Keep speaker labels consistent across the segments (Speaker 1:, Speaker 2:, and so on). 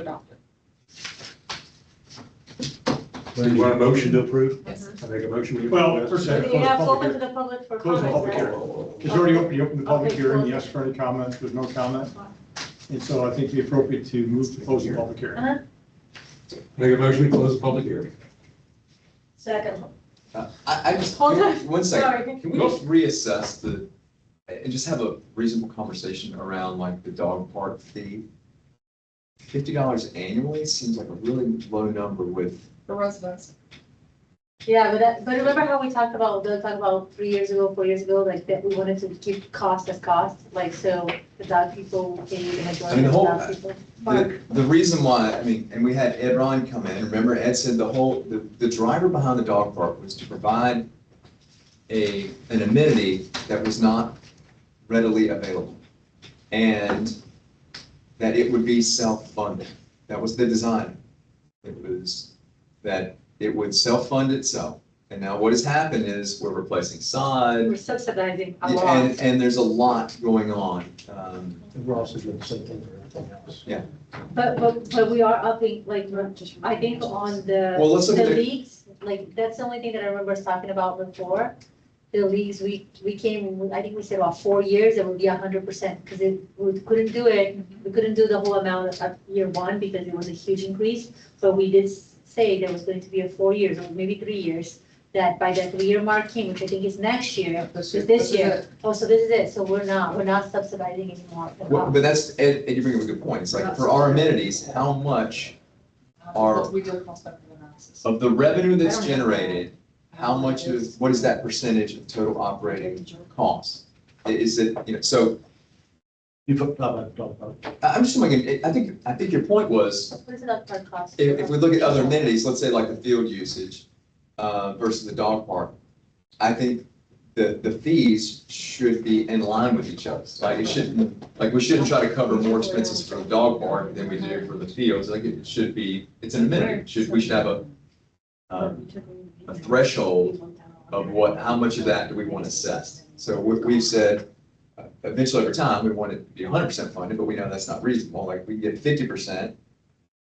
Speaker 1: adopted.
Speaker 2: Do you want a motion to approve?
Speaker 1: Yes.
Speaker 2: I make a motion. we-
Speaker 3: Well, first I have to
Speaker 4: You
Speaker 3: close the
Speaker 4: have
Speaker 3: public
Speaker 4: open to
Speaker 3: hearing.
Speaker 4: the public for
Speaker 3: Close the public
Speaker 4: comments, right?
Speaker 3: hearing. It's already open, you opened the public
Speaker 4: Okay,
Speaker 3: hearing,
Speaker 4: close.
Speaker 3: you asked for any comments, there's no comment. And so I think it'd be appropriate to move to close the public hearing.
Speaker 4: Uh-huh.
Speaker 2: Make a motion, we close the public hearing.
Speaker 4: Second,
Speaker 5: I, Uh, I just,
Speaker 4: Hold on.
Speaker 5: one second,
Speaker 4: sorry.
Speaker 5: can we just reassess the, and just have a reasonable conversation around like the dog park fee? Fifty dollars annually seems like a really low number with,
Speaker 1: The residents.
Speaker 4: Yeah, but that, but remember how we talked about, Bill talked about three years ago, four years ago, like that we wanted to keep cost as cost, like so the dog people pay the majority of
Speaker 5: whole-
Speaker 4: dog people. Park.
Speaker 5: the, the reason why, I mean, and we had Ed Ron come in, remember Ed said the whole, the, the driver behind the dog park was to provide a, an amenity that was not readily available. And that it would be self-funded. That was the design. It was that it would self-fund itself. And now what has happened is we're replacing sod.
Speaker 4: We're subsidizing a lot.
Speaker 5: And, and there's a lot going on. Um,
Speaker 6: We're also doing the same thing for everything else.
Speaker 4: But, but, but we are upping, like, we're- I think on
Speaker 5: Well,
Speaker 4: the,
Speaker 5: let's look
Speaker 4: the
Speaker 5: at the-
Speaker 4: leagues, like, that's the only thing that I remember us talking about before. The leagues, we, we came, I think we said about four years, it would be a hundred percent, because it, we couldn't do it. We couldn't do the whole amount of year one because it was a huge increase, but we did s- say there was going to be a four years or maybe three years. That by the three-year mark came, which I think is next year,
Speaker 1: This
Speaker 4: year. This year. oh, so this is it, so we're not, we're not subsidizing anymore. the
Speaker 5: well,
Speaker 4: cost.
Speaker 5: but that's, Ed, Ed, you bring up a good point. It's like for our amenities, how much Our-
Speaker 1: uh, We do a cost benefit analysis.
Speaker 5: of the revenue
Speaker 1: I
Speaker 5: that's
Speaker 1: don't know.
Speaker 5: generated, how much is, what is that percentage of total operating cost? I- Is it, you know, so
Speaker 6: You put, uh, dog park.
Speaker 5: I- I'm just wondering, I think, I think your point was
Speaker 4: What is it up for cost?
Speaker 5: if, if we look at other amenities, let's say like the field usage uh, versus the dog park, I think the, the fees should be in line with each other. Like it shouldn't, like we shouldn't try to cover more expenses for the dog park than we do for the fields. Like it should be, it's an amenity. Should, we should have a, um, a threshold of what, how much of that do we want assessed? So we, we've said, uh, eventually over time, we want it to be hundred percent funded, but we know that's not reasonable, like we can get fifty percent.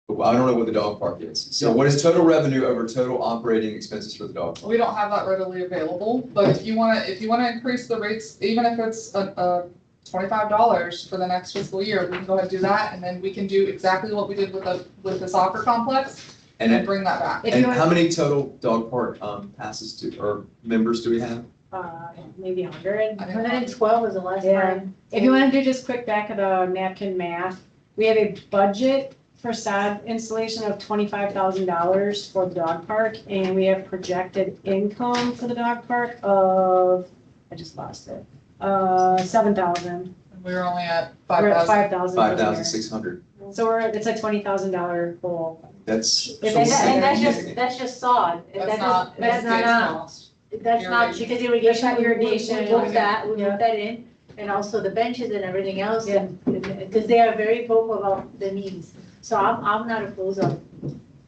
Speaker 5: But I don't know what the dog park is, so what is total revenue over total operating expenses for the dog? park?
Speaker 1: We don't have that readily available, but if you want to, if you want to increase the rates, even if it's a, a twenty-five dollars for the next fiscal year, we can go ahead and do that, and then we can do exactly what we did with the, with the soccer complex
Speaker 5: And,
Speaker 1: and
Speaker 5: it-
Speaker 1: bring that back.
Speaker 4: If
Speaker 5: and
Speaker 4: you're-
Speaker 5: how many total dog park, um, passes to, or members do we have?
Speaker 4: Uh, maybe a hundred,
Speaker 1: I think
Speaker 4: hundred and twelve was the last
Speaker 7: Yeah.
Speaker 4: time.
Speaker 7: If you want to do just quick back of the napkin math, we have a budget for sod installation of twenty-five thousand dollars for the dog park, and we have projected income for the dog park of, I just lost it, uh, seven thousand.
Speaker 1: And We were only at five
Speaker 7: We're at
Speaker 1: thousand.
Speaker 7: five thousand.
Speaker 5: Five thousand six hundred,
Speaker 7: So we're, it's a twenty thousand dollar goal.
Speaker 5: that's.
Speaker 7: If
Speaker 4: And
Speaker 7: it's-
Speaker 4: that- and that's just,
Speaker 5: significant.
Speaker 4: that's just sod. If
Speaker 1: That's
Speaker 4: that
Speaker 1: not,
Speaker 4: does-
Speaker 1: that's
Speaker 4: That's not, uh,
Speaker 1: not.
Speaker 4: that's not,
Speaker 1: irrigation.
Speaker 4: because irrigation,
Speaker 7: That's
Speaker 4: we
Speaker 7: not
Speaker 4: irrigation, we
Speaker 7: irrigation.
Speaker 4: moved that, we
Speaker 7: Yeah.
Speaker 4: moved that in. And also the benches and everything else, and, because they are very vocal about the needs. So I'm, I'm not opposed of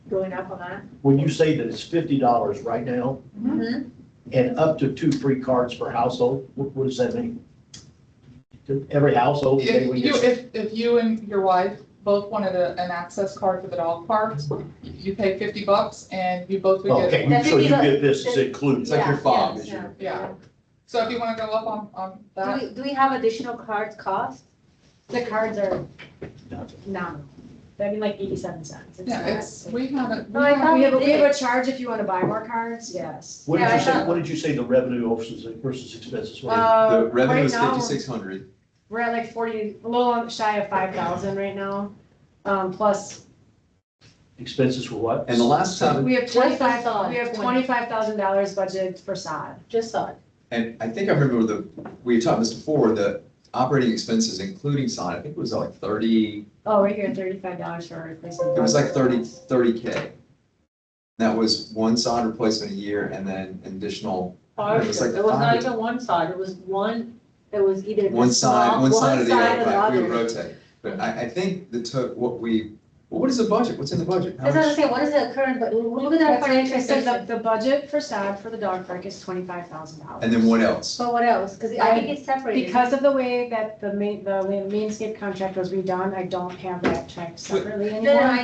Speaker 4: going up on that. Mm-hmm.
Speaker 6: When you say that it's fifty dollars right now
Speaker 7: Mm-hmm.
Speaker 6: and up to two free cards per household, what, what does that mean? To Every household, they
Speaker 1: If
Speaker 6: would
Speaker 1: you,
Speaker 6: get-
Speaker 1: if, if you and your wife both wanted a, an access card for the dog park, you pay fifty bucks and you both would
Speaker 6: okay,
Speaker 1: get.
Speaker 4: That's
Speaker 6: so you
Speaker 4: because-
Speaker 6: get this is
Speaker 5: It's
Speaker 6: included.
Speaker 5: like your
Speaker 4: Yeah,
Speaker 5: fob,
Speaker 4: yeah,
Speaker 5: is your-
Speaker 1: Yeah. So if you wanna go up on, on
Speaker 4: Do
Speaker 1: that,
Speaker 4: we, do we have additional cards cost?
Speaker 7: The cards are nominal. That'd be like eighty-seven cents. It's
Speaker 1: yeah,
Speaker 7: not-
Speaker 1: it's, we haven't.
Speaker 4: No, Oh, I thought-
Speaker 7: We have, a- we have a charge if you want to buy more cards, yes.
Speaker 6: What
Speaker 4: Yeah,
Speaker 6: did
Speaker 4: I
Speaker 6: you say,
Speaker 4: thought-
Speaker 6: what did you say the revenue versus, versus expenses? were?
Speaker 7: Uh,
Speaker 5: The revenue
Speaker 7: right
Speaker 5: is
Speaker 7: now,
Speaker 5: fifty-six hundred,
Speaker 7: We're at like forty, a little shy of five thousand right now, um, plus,
Speaker 6: Expenses were what?
Speaker 5: and the last time,
Speaker 7: we have
Speaker 4: Just for
Speaker 7: twenty-five,
Speaker 4: sod,
Speaker 7: we have
Speaker 4: 20.
Speaker 7: twenty-five thousand dollars budgeted for sod.
Speaker 4: Just sod.
Speaker 5: And I think I remember the, we had talked this before, the operating expenses including sign, I think it was like thirty,
Speaker 7: Oh, right here, thirty-five dollars for replacement.
Speaker 5: it was like thirty, thirty K. That was one sign replacement a year and then an additional,
Speaker 4: Partial,
Speaker 5: It was like
Speaker 4: it was not
Speaker 5: five.
Speaker 4: even one side, it was one, it was either. the
Speaker 5: one
Speaker 4: small-
Speaker 5: side, one side of the
Speaker 4: or
Speaker 5: other, right, we would
Speaker 4: other.
Speaker 5: rotate. But I, I think the to, what we, well, what is the budget, what's in the budget? How
Speaker 4: That's what I'm
Speaker 5: much-
Speaker 4: saying, what is the current, but look at that
Speaker 7: That's right,
Speaker 4: financial
Speaker 7: I said
Speaker 4: statement,
Speaker 7: the, the budget for sod for the dog park is twenty-five thousand dollars.
Speaker 5: And then what else?
Speaker 4: so what else, because I think it's separated.
Speaker 7: Because of the way that the main, the landscape contract was redone, I don't have that checked separately
Speaker 4: No,
Speaker 7: anymore.
Speaker 4: no, I